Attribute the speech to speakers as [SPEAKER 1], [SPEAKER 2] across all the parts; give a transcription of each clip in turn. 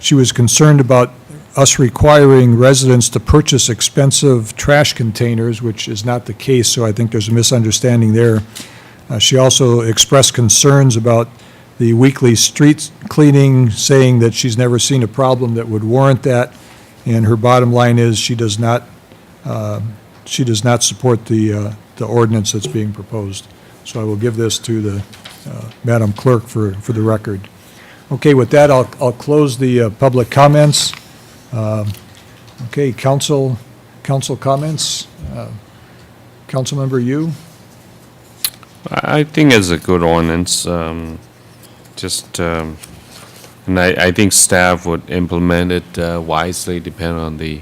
[SPEAKER 1] she was concerned about us requiring residents to purchase expensive trash containers, which is not the case, so I think there's a misunderstanding there. Uh, She also expressed concerns about the weekly street cleaning, saying that she's never seen a problem that would warrant that, and her bottom line is, she does not, uh, she does not support the, uh, the ordinance that's being proposed. So I will give this to the uh, Madam Clerk for, for the record. Okay, with that, I'll, I'll close the uh, public comments. Um, Okay, council, council comments. Uh, Councilmember Yu?
[SPEAKER 2] I I think it's a good ordinance, um, just, um, and I, I think staff would implement it uh, wisely depending on the,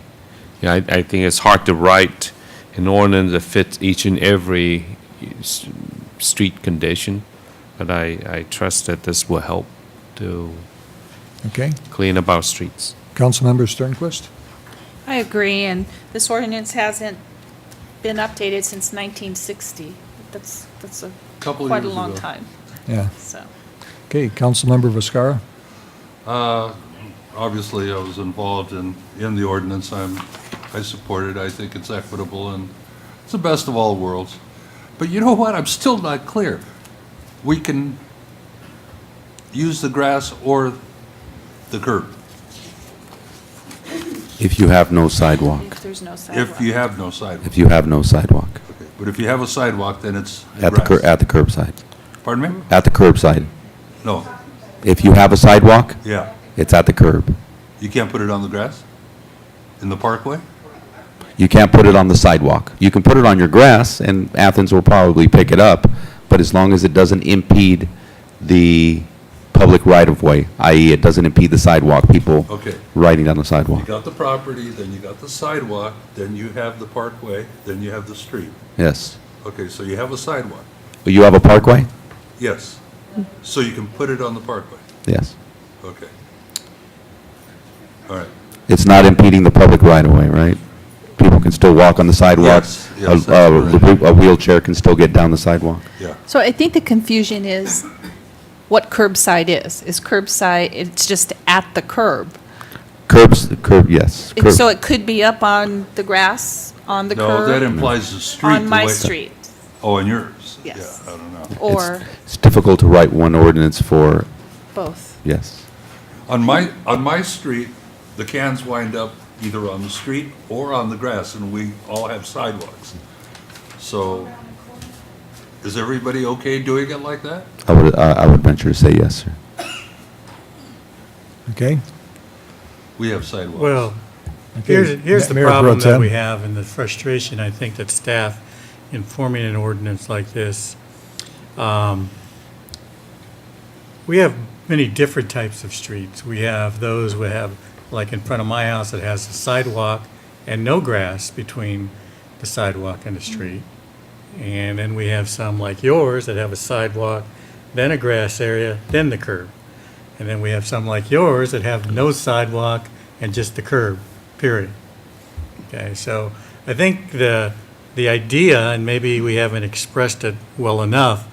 [SPEAKER 2] yeah, I, I think it's hard to write an ordinance that fits each and every uh, s- street condition, but I, I trust that this will help to
[SPEAKER 1] Okay,
[SPEAKER 2] clean up our streets.
[SPEAKER 1] Councilmember Sternquist?
[SPEAKER 3] I agree, and this ordinance hasn't been updated since 1960. That's, that's a,
[SPEAKER 4] Couple
[SPEAKER 3] quite a
[SPEAKER 4] years
[SPEAKER 3] long
[SPEAKER 4] ago.
[SPEAKER 3] time,
[SPEAKER 1] Yeah,
[SPEAKER 3] so.
[SPEAKER 1] okay, Councilmember Viscara?
[SPEAKER 4] Obviously, I was involved in, in the ordinance. I'm, I support it. I think it's equitable and it's the best of all worlds. But you know what? I'm still not clear. We can use the grass or the curb
[SPEAKER 5] If you have no sidewalk.
[SPEAKER 3] If there's no sidewalk.
[SPEAKER 4] if you have no sidewalk.
[SPEAKER 5] If you have no sidewalk.
[SPEAKER 4] But if you have a sidewalk, then it's
[SPEAKER 5] At the, cur-
[SPEAKER 4] grass.
[SPEAKER 5] at the curbside.
[SPEAKER 4] Pardon me?
[SPEAKER 5] At the curbside.
[SPEAKER 4] No,
[SPEAKER 5] If you have a sidewalk,
[SPEAKER 4] yeah.
[SPEAKER 5] it's at the curb.
[SPEAKER 4] You can't put it on the grass? In the parkway?
[SPEAKER 5] You can't put it on the sidewalk. You can put it on your grass, and Athens will probably pick it up, but as long as it doesn't impede the public right-of-way, i.e. it doesn't impede the sidewalk, people
[SPEAKER 4] Okay.
[SPEAKER 5] riding down the
[SPEAKER 4] You
[SPEAKER 5] sidewalk.
[SPEAKER 4] got the property, then you got the sidewalk, then you have the parkway, then you have the street.
[SPEAKER 5] Yes.
[SPEAKER 4] Okay, so you have a sidewalk,
[SPEAKER 5] You have a parkway?
[SPEAKER 4] yes. So you can put it on the parkway,
[SPEAKER 5] Yes.
[SPEAKER 4] okay. All right,
[SPEAKER 5] It's not impeding the public right-of-way, right? People can still walk on the sidewalk.
[SPEAKER 4] Yes,
[SPEAKER 5] A-
[SPEAKER 4] yes, that's
[SPEAKER 5] A
[SPEAKER 4] correct.
[SPEAKER 5] a wheelchair can still get down the sidewalk.
[SPEAKER 4] yeah.
[SPEAKER 3] So I think the confusion is what curbside is. Is curbside, it's just at the curb.
[SPEAKER 5] Curbs, curb, yes.
[SPEAKER 3] And
[SPEAKER 5] curb.
[SPEAKER 3] so it could be up on the grass, on the
[SPEAKER 4] No,
[SPEAKER 3] curb,
[SPEAKER 4] that implies the street.
[SPEAKER 3] on
[SPEAKER 4] the
[SPEAKER 3] my
[SPEAKER 4] way-
[SPEAKER 3] street,
[SPEAKER 4] Oh, on yours?
[SPEAKER 3] Yes.
[SPEAKER 4] Yeah, I don't know.
[SPEAKER 5] It's-
[SPEAKER 3] or
[SPEAKER 5] It's difficult to write one ordinance for,
[SPEAKER 3] both.
[SPEAKER 5] yes.
[SPEAKER 4] On my, on my street, the cans wind up either on the street or on the grass, and we all have sidewalks. So, is everybody okay doing it like that?
[SPEAKER 5] I would, I I would venture to say yes, sir.
[SPEAKER 1] Okay?
[SPEAKER 4] We have sidewalks.
[SPEAKER 6] Well,
[SPEAKER 1] okay,
[SPEAKER 6] here's, here's the
[SPEAKER 1] Mayor Pro
[SPEAKER 6] problem that
[SPEAKER 1] Tem.
[SPEAKER 6] we have and the frustration, I think, that staff in forming an ordinance like this. Um, We have many different types of streets. We have those we have, like in front of my house, that has a sidewalk and no grass between the sidewalk and the street. And then we have some like yours that have a sidewalk, then a grass area, then the curb. And then we have some like yours that have no sidewalk and just the curb, period. Okay, so I think the, the idea, and maybe we haven't expressed it well enough,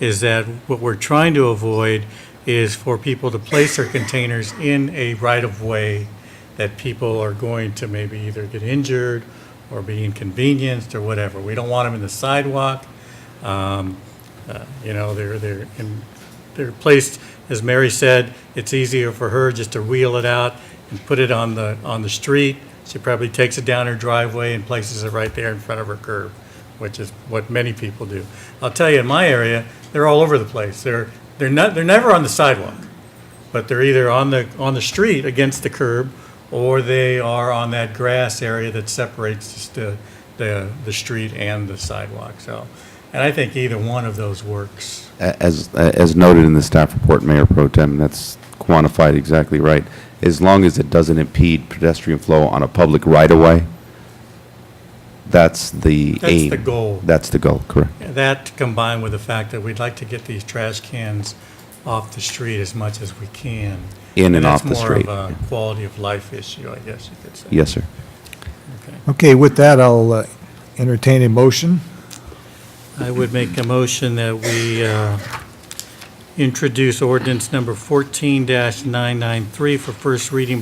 [SPEAKER 6] is that what we're trying to avoid is for people to place their containers in a right-of-way that people are going to maybe either get injured or be inconvenienced or whatever. We don't want them in the sidewalk. Um, uh, You know, they're, they're, in- they're placed, as Mary said, it's easier for her just to wheel it out and put it on the, on the street. She probably takes it down her driveway and places it right there in front of her curb, which is what many people do. I'll tell you, in my area, they're all over the place. They're, they're not, they're never on the sidewalk, but they're either on the, on the street against the curb, or they are on that grass area that separates just the, the, the street and the sidewalk, so. And I think either one of those works.
[SPEAKER 5] A- As, as noted in the staff report, Mayor Pro Tem, that's quantified exactly right. As long as it doesn't impede pedestrian flow on a public right-of-way, that's the
[SPEAKER 6] That's
[SPEAKER 5] aim.
[SPEAKER 6] the goal.
[SPEAKER 5] That's the goal, correct.
[SPEAKER 6] That combined with the fact that we'd like to get these trash cans off the street as much as we can.
[SPEAKER 5] In and off the street.
[SPEAKER 6] That's more of a quality of life issue, I guess you could say.
[SPEAKER 5] Yes, sir.
[SPEAKER 6] Okay.
[SPEAKER 1] Okay, with that, I'll uh, entertain a motion.
[SPEAKER 6] I would make a motion that we uh, introduce ordinance number 14-993 for first reading